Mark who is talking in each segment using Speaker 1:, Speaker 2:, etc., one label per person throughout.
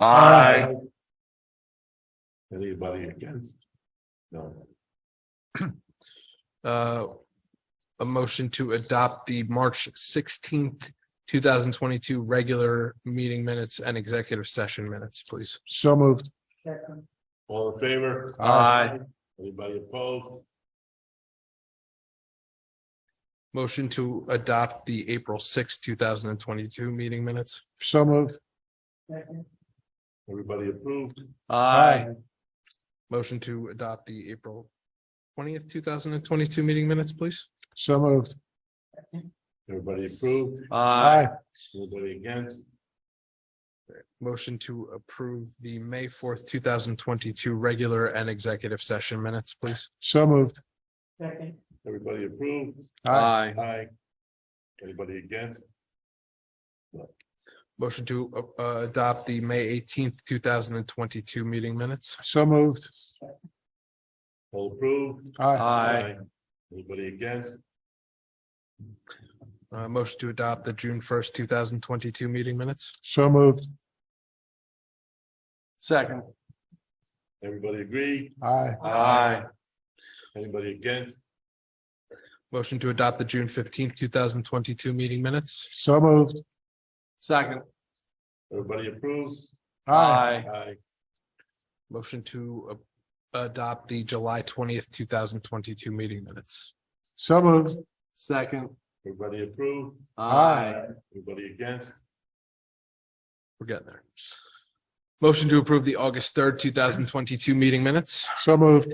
Speaker 1: Aye.
Speaker 2: Anybody against? No.
Speaker 3: uh, a motion to adopt the March sixteenth, two thousand twenty-two regular meeting minutes and executive session minutes, please.
Speaker 4: So moved.
Speaker 2: All in favor?
Speaker 1: Aye.
Speaker 2: Anybody opposed?
Speaker 3: Motion to adopt the April sixth, two thousand and twenty-two meeting minutes.
Speaker 4: So moved.
Speaker 2: Everybody approved?
Speaker 1: Aye.
Speaker 3: Motion to adopt the April twentieth, two thousand and twenty-two meeting minutes, please.
Speaker 4: So moved.
Speaker 2: Everybody approved?
Speaker 1: Aye.
Speaker 2: Anybody against?
Speaker 3: Motion to approve the May fourth, two thousand twenty-two regular and executive session minutes, please.
Speaker 4: So moved.
Speaker 2: Everybody approved?
Speaker 1: Aye.
Speaker 2: Aye. Anybody against?
Speaker 3: Motion to uh, uh, adopt the May eighteenth, two thousand and twenty-two meeting minutes.
Speaker 4: So moved.
Speaker 2: All approved?
Speaker 4: Aye.
Speaker 2: Anybody against?
Speaker 3: Uh, motion to adopt the June first, two thousand twenty-two meeting minutes.
Speaker 4: So moved.
Speaker 1: Second.
Speaker 2: Everybody agree?
Speaker 4: Aye.
Speaker 1: Aye.
Speaker 2: Anybody against?
Speaker 3: Motion to adopt the June fifteenth, two thousand twenty-two meeting minutes.
Speaker 4: So moved.
Speaker 1: Second.
Speaker 2: Everybody approved?
Speaker 1: Aye.
Speaker 2: Aye.
Speaker 3: Motion to uh, adopt the July twentieth, two thousand twenty-two meeting minutes.
Speaker 4: So moved.
Speaker 1: Second.
Speaker 2: Everybody approved?
Speaker 1: Aye.
Speaker 2: Anybody against?
Speaker 3: We're getting there. Motion to approve the August third, two thousand twenty-two meeting minutes.
Speaker 4: So moved.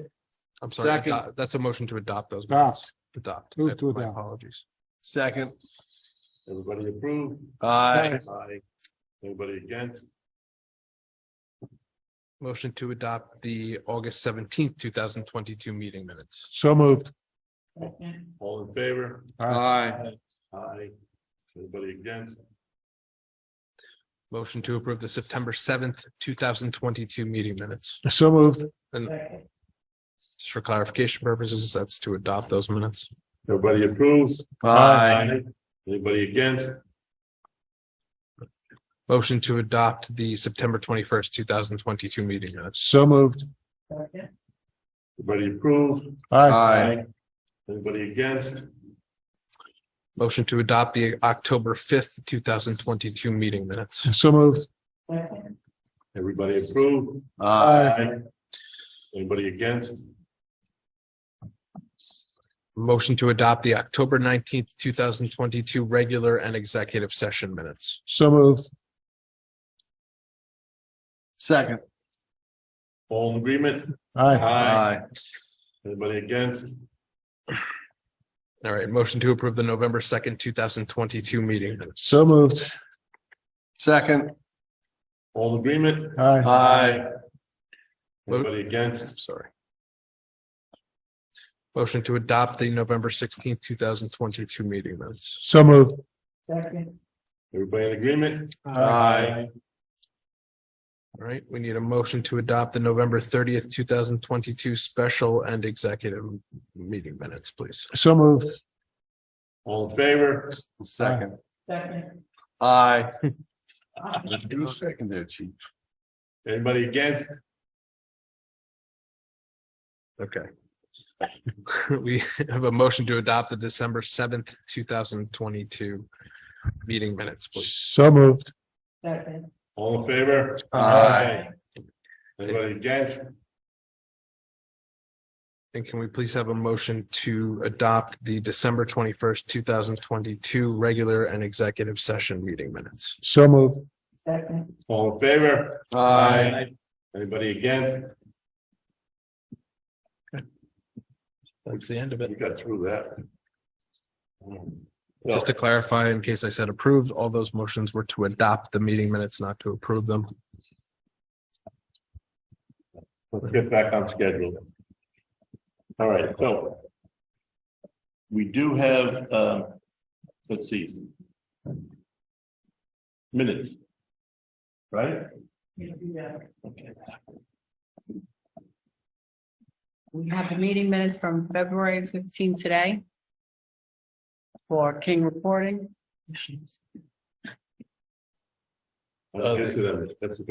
Speaker 3: I'm sorry,
Speaker 1: Second.
Speaker 3: adopt- that's a motion to adopt those.
Speaker 4: Adopt.
Speaker 3: minutes. Adopt.
Speaker 4: Ah. Move to
Speaker 3: My
Speaker 4: adopt.
Speaker 3: Apologies.
Speaker 1: Second.
Speaker 2: Everybody approved?
Speaker 1: Aye.
Speaker 2: Aye. Anybody against?
Speaker 3: Motion to adopt the August seventeenth, two thousand twenty-two meeting minutes.
Speaker 4: So moved.
Speaker 2: All in favor?
Speaker 1: Aye.
Speaker 2: Aye. Anybody against?
Speaker 3: Motion to approve the September seventh, two thousand twenty-two meeting minutes.
Speaker 4: So moved.
Speaker 3: Just for clarification purposes, that's to adopt those minutes.
Speaker 2: Everybody approves?
Speaker 1: Aye.
Speaker 2: Anybody against?
Speaker 3: Motion to adopt the September twenty-first, two thousand twenty-two meeting minutes.
Speaker 4: So moved.
Speaker 2: Everybody approved?
Speaker 4: Aye.
Speaker 2: Anybody against?
Speaker 3: Motion to adopt the October fifth, two thousand twenty-two meeting minutes.
Speaker 4: So moved.
Speaker 2: Everybody approved?
Speaker 1: Aye.
Speaker 2: Anybody against?
Speaker 3: Motion to adopt the October nineteenth, two thousand twenty-two regular and executive session minutes.
Speaker 4: So moved.
Speaker 1: Second.
Speaker 2: All in agreement?
Speaker 4: Aye.
Speaker 2: Anybody against?
Speaker 3: All right, motion to approve the November second, two thousand twenty-two meeting minutes.
Speaker 4: So moved.
Speaker 1: Second.
Speaker 2: All in agreement?
Speaker 4: Aye.
Speaker 1: Aye.
Speaker 2: Anybody against?
Speaker 3: I'm sorry. Motion to adopt the November sixteenth, two thousand twenty-two meeting minutes.
Speaker 4: So moved.
Speaker 2: Everybody in agreement?
Speaker 3: All right, we need a motion to adopt the November thirtieth, two thousand twenty-two special and executive meeting minutes, please.
Speaker 4: So moved.
Speaker 2: All in favor?
Speaker 1: Second.
Speaker 5: Second.
Speaker 1: Aye.
Speaker 2: You
Speaker 1: second there, chief.
Speaker 2: Anybody against?
Speaker 3: Okay. We have a motion to adopt the December seventh, two thousand twenty-two meeting minutes, please.
Speaker 4: So moved.
Speaker 5: Second.
Speaker 2: All in favor?
Speaker 1: Aye.
Speaker 2: Anybody against?
Speaker 3: And can we please have a motion to adopt the December twenty-first, two thousand twenty-two regular and executive session meeting minutes?
Speaker 4: So moved.
Speaker 5: Second.
Speaker 2: All in favor?
Speaker 1: Aye.
Speaker 2: Anybody against?
Speaker 3: That's the end of
Speaker 2: We got through that.
Speaker 3: Just to clarify, in case I said approved, all those motions were to adopt the meeting minutes, not to approve them.
Speaker 2: Let's get back on schedule. All right, so. We do have, um, let's see. Minutes. Right?
Speaker 5: You do that. We have the meeting minutes from February fifteen today. For King reporting.
Speaker 2: Let's get to them. That's the